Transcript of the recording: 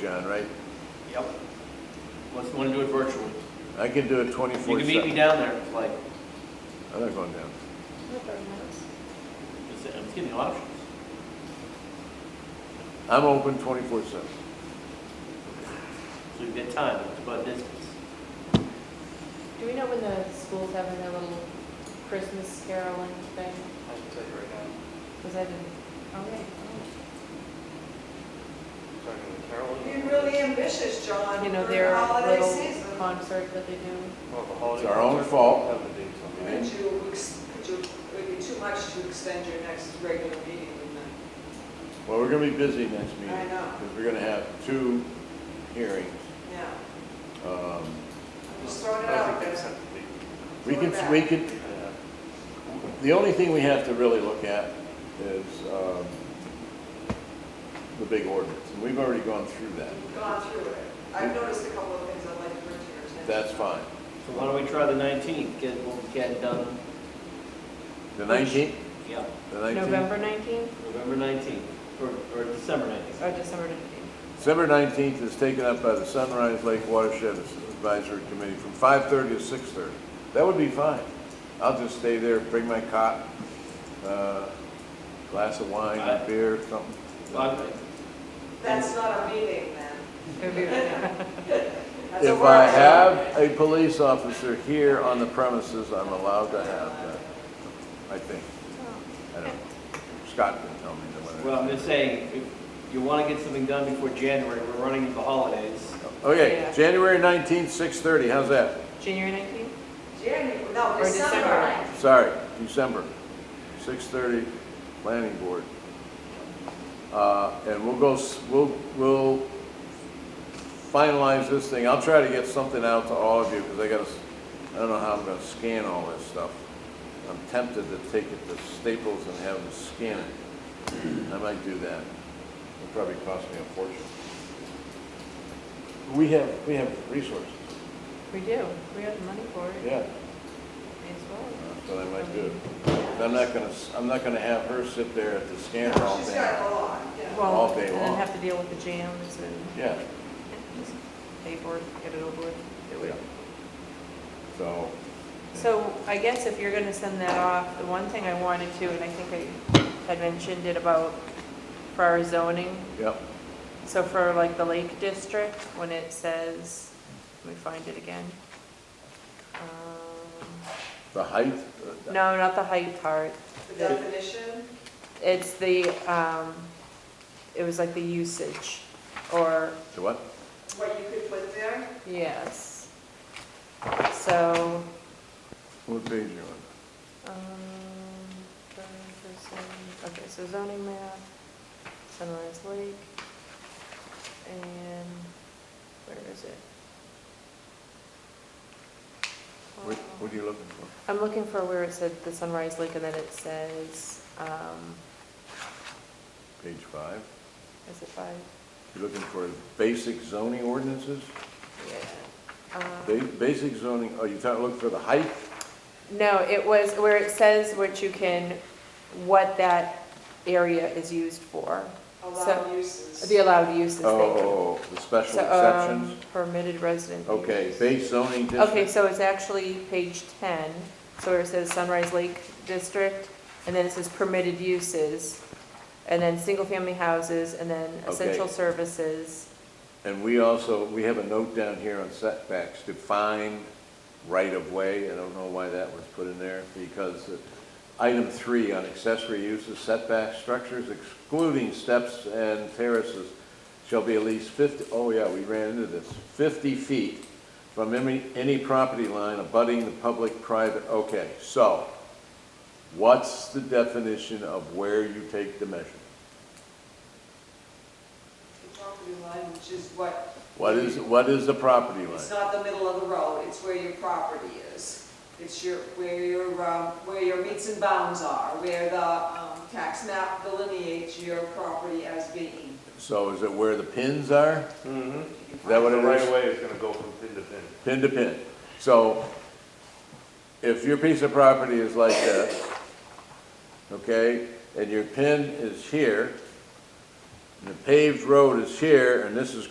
John, right? Yep. Unless you want to do it virtually. I can do it You twenty-four can meet me seven. down there, if like, I'm not going down. it's- I'm just giving you options. I'm open twenty-four seven. So you get time, it's about distance. Do we know when the school's having their little Christmas caroling thing? I can tell you right now. Because I didn't. Okay. Starting with Carolyn. You're really ambitious, John, You know, for the their holiday little season. concert that they do. It's our own fault. Could you, ex- could you, it would be too much to extend your next regular meeting, wouldn't Well, we're gonna be busy next meeting. I know. Because we're gonna have two hearings. it? Yeah, Um, I'm just throwing it out there. We Throw it can, back. we can, the only thing we have to really look at is, um, the big ordinance. And we've already gone through that. We've gone through it. I've noticed a couple of things I'd like to bring to your attention. That's fine. So why don't we try the 19th, get what we can done, The nineteenth, yeah, the nineteenth? November 19th November 19th, or, or December 19th. or Oh, December 19th? December nineteenth is taken up by the Sunrise Lake Watershed Advisory Committee from five-thirty to six-thirty. That would be fine. I'll just stay there, bring my cot, uh, glass of wine, Aye. beer, something. Well, That's not a meeting, then. It would be really- That's a If I workshop. have a police officer here on the premises, I'm allowed to have that, I think. I don't know. Scott can tell me the I- whether. Well, I'm just saying, if you want to get something done before January, we're running into the holidays. Okay, Yeah. January nineteenth, six-thirty, how's that? January 19th? January, no, Or December. December. Sorry, December, six-thirty, planning board. Uh, and we'll go, s- we'll, we'll finalize this thing. I'll try to get something out to all of you, because I gotta, s- I don't know how I'm gonna scan all this stuff. I'm tempted to take it to Staples and have them scan it. I might do that. It'll probably cost me a fortune. We have, we have resources, We do. We have the money for it. yeah. May as well. But I might do. But I'm not gonna, I'm not gonna have her sit there at the scanner all She's day. got a lot, yeah. All Well, day and then long. have to deal with the jams and Yeah, just pay for it, get it over with, do Yeah. it. so, So I guess if you're gonna send that off, the one thing I wanted to, and I think I had mentioned it about for our zoning, yep, so for like the Lake District, when it says, let me find it again. Um, the height. uh, No, not the height part, The definition, it's the, um, it was like the usage, or, The what? what you could put there. yes. So, What page you on? Um, zoning person, okay, so zoning map, Sunrise Lake, and where is it? What, Uh, what are you looking for? I'm looking for where it said the Sunrise Lake and then it says, um, Page five? is it five? You're looking for basic zoning ordinances? Yeah. Ba- Um, Basic zoning, are you trying to look for the height? No, it was where it says what you can, what that area is used for, Allow So, uses. the allowed uses, Oh, thank you. Oh, oh, the special So, um, exceptions? Permitted resident. Okay, use. base zoning Okay, district? so it's actually page 10, so where it says Sunrise Lake District, and then it says permitted uses, and then single-family houses, and then essential Okay. services. And we also, we have a note down here on setbacks, define right-of-way. I don't know why that was put in there, because item three on accessory uses, setback structures excluding steps and terraces shall be at least 50, oh yeah, we ran into this, 50 feet from any, any property line abutting the public, private, okay. So, what's the definition of where you take the measure? The property line, which is what. What is, what is the property line? It's not the middle of the road, it's where your property is. It's your, where your, um, where your meets and bounds are, where the, um, tax map delineates your property as being. So is it where the pins are? Mm-hmm. Is that what it Right was? away, it's gonna go from pin to pin. Pin to pin. So if your piece of property is like this, okay, and your pin is here, and the paved road is here, and this is